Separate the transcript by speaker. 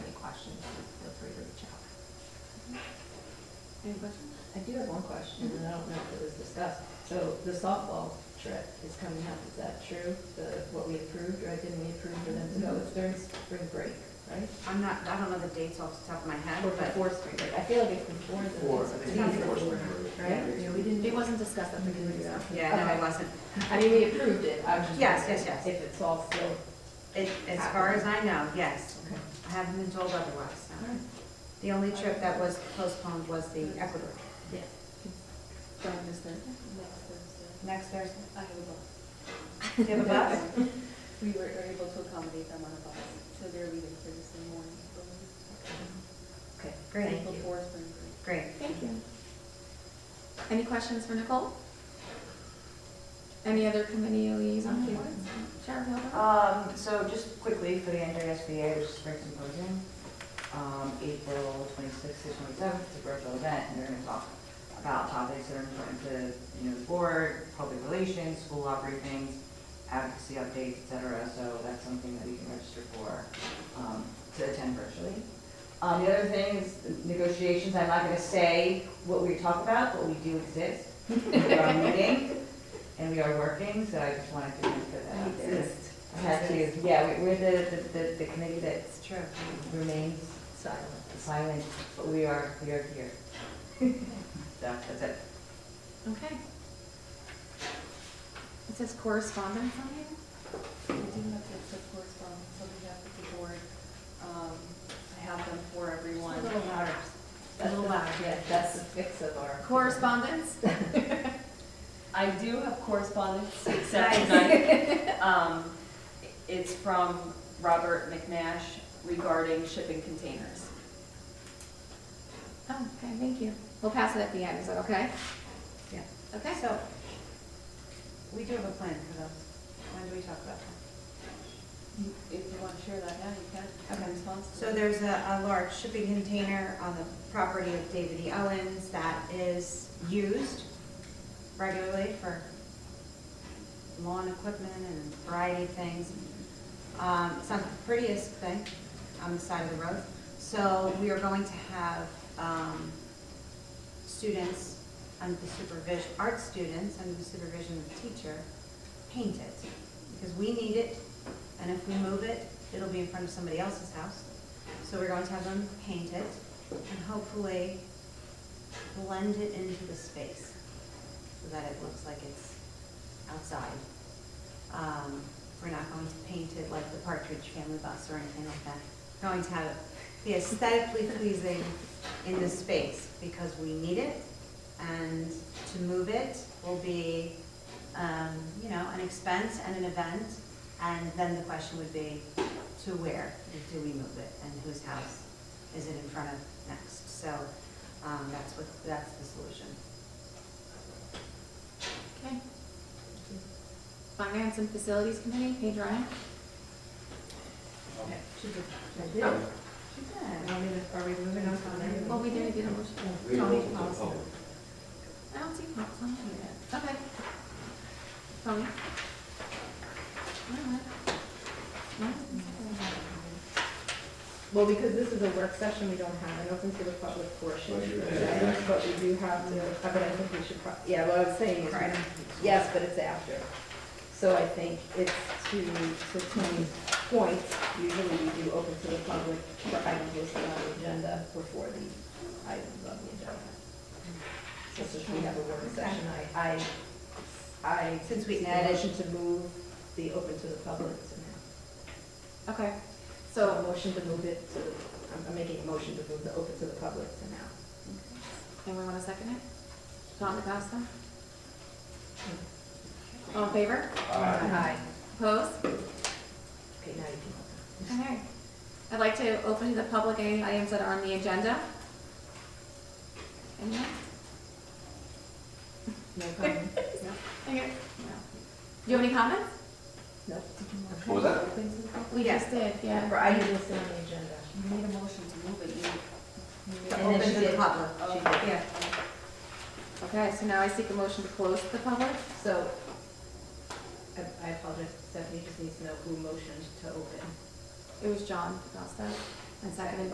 Speaker 1: Any questions? I do have one question, and I don't know if it was discussed. So the softball trip is coming up, is that true? The, what we approved, or didn't we approve for them to go? It's during spring break, right?
Speaker 2: I'm not, I don't know the dates off the top of my head,
Speaker 1: Or
Speaker 2: but
Speaker 1: before spring break? I feel like it's before the.
Speaker 3: Or, I think it's before spring break.
Speaker 1: Right? Yeah, we didn't.
Speaker 2: it wasn't discussed at the committee. so- Yeah, no,
Speaker 1: Okay.
Speaker 2: it wasn't.
Speaker 1: I mean, we approved it, I was just.
Speaker 2: Yes,
Speaker 1: wondering
Speaker 2: yes, yes.
Speaker 1: If it's all still.
Speaker 2: It, as far as I know, yes.
Speaker 1: Okay.
Speaker 2: I haven't been told otherwise.
Speaker 1: All
Speaker 2: no.
Speaker 1: right.
Speaker 2: The only trip that was postponed was the Ecuador.
Speaker 1: Yeah.
Speaker 4: Going this Thursday? Next Thursday.
Speaker 2: Next Thursday.
Speaker 4: I have a bus.
Speaker 2: Do you have a bus?
Speaker 4: We were are able to accommodate them on a bus, so they're leaving Thursday morning, I believe.
Speaker 1: Okay.
Speaker 2: Great,
Speaker 1: Thank you.
Speaker 4: Before spring break.
Speaker 2: great.
Speaker 1: Thank you.
Speaker 5: Any questions for Nicole? Any other committee liaison reports? Sharon Hilda?
Speaker 6: Um, so just quickly for the NJSBA, which is Spring Symposium, um, April twenty-sixth to twenty-seventh, it's a virtual event, and they're gonna talk about topics that are important to, you know, the board, public relations, school law briefings, advocacy updates, et cetera, so that's something that you can register for, um, to attend virtually. Um, the other thing is negotiations, I'm not gonna say what we talk about, but we do exist, we are meeting, and we are working, so I just wanted to put
Speaker 2: Uh,
Speaker 6: that out there.
Speaker 2: Exist.
Speaker 6: Had to, yeah, we- we're the, the- the, the committee that
Speaker 2: It's true.
Speaker 6: remains
Speaker 1: Silent.
Speaker 6: silent, but we are, we are here. So, that's it.
Speaker 5: Okay. It says correspondence on here?
Speaker 4: We do have to accept correspondence on behalf of the board. Um, I have them for everyone.
Speaker 2: A little louder. A
Speaker 1: That's
Speaker 2: little
Speaker 1: the-
Speaker 2: louder.
Speaker 1: Yeah, that's the fix of our.
Speaker 5: Correspondence?
Speaker 4: I do have correspondence except tonight. Um, It's from Robert McNash regarding shipping containers.
Speaker 5: Oh, okay, thank you. We'll pass it at the end, is that okay?
Speaker 2: Yeah.
Speaker 5: Okay, so
Speaker 2: So, we do have a plan for those. When do we talk about that?
Speaker 4: You- If you want to share that now, you can. I'm
Speaker 2: Okay.
Speaker 4: responsible.
Speaker 2: So there's a, a large shipping container on the property of David E. Owens that is used regularly for lawn equipment and a variety of things. Um, it's not the prettiest thing on the side of the road. So we are going to have, um, students under the supervision, art students under the supervision of the teacher, paint it. Because we need it, and if we move it, it'll be in front of somebody else's house. So we're going to have them paint it and hopefully blend it into the space so that it looks like it's outside. Um, We're not going to paint it like the Partridge Family Bus or anything like that. We're Going to have it be aesthetically pleasing in the space because we need it. And to move it will be, um, you know, an expense and an event. And then the question would be, to where do we move it and whose house is it in front of next? So um, that's what, that's the solution.
Speaker 5: Okay. Finance and Facilities Committee, Paige Ryan?
Speaker 2: She did.
Speaker 1: I did.
Speaker 2: She did. Are we- Are we moving on from there?
Speaker 5: Well, we didn't get a motion.
Speaker 3: We
Speaker 5: Tony,
Speaker 3: open the
Speaker 5: policy.
Speaker 3: public.
Speaker 5: I don't see pops on here yet. Okay. Tony? All right. Well,
Speaker 1: Well, because this is a work session, we don't have an open to the public portion,
Speaker 3: But you-
Speaker 1: right? but we do have the, but I think we should, pro- yeah, what I was saying is,
Speaker 2: Right.
Speaker 1: yes, but it's after. So I think it's to, to Tony's point, usually we do open to the public for items listed on the agenda before the items on the agenda. So since we have a work session, I, I, I.
Speaker 2: Since we
Speaker 1: make a
Speaker 2: added-
Speaker 1: Motion to move the open to the public to now.
Speaker 5: Okay,
Speaker 1: So a
Speaker 5: so,
Speaker 1: motion to move it to, I'm- I'm making a motion to move the open to the public to now.
Speaker 5: anyone want to second it? John DeCosta? All in favor?
Speaker 1: Aye.
Speaker 5: Opposed?
Speaker 1: Okay, now you can.
Speaker 5: Okay. I'd like to open to the public any items that are on the agenda. Anyone?
Speaker 1: No comment?
Speaker 5: Okay. Do you have any comments?
Speaker 1: No?
Speaker 3: What was that?
Speaker 1: Open to the public?
Speaker 5: We just did, yeah.
Speaker 1: For items listed on the agenda.
Speaker 4: You made a motion to move it, you. you
Speaker 1: And
Speaker 4: made-
Speaker 1: then
Speaker 2: Open
Speaker 1: she
Speaker 2: to the
Speaker 1: did.
Speaker 2: public.
Speaker 4: Oh,
Speaker 1: She
Speaker 4: okay.
Speaker 2: Yeah.
Speaker 5: Okay, so now I seek a motion to close the public.
Speaker 1: So, I- I apologize, Stephanie just needs to know who motioned to open.
Speaker 5: It was John DeCosta, and seconded by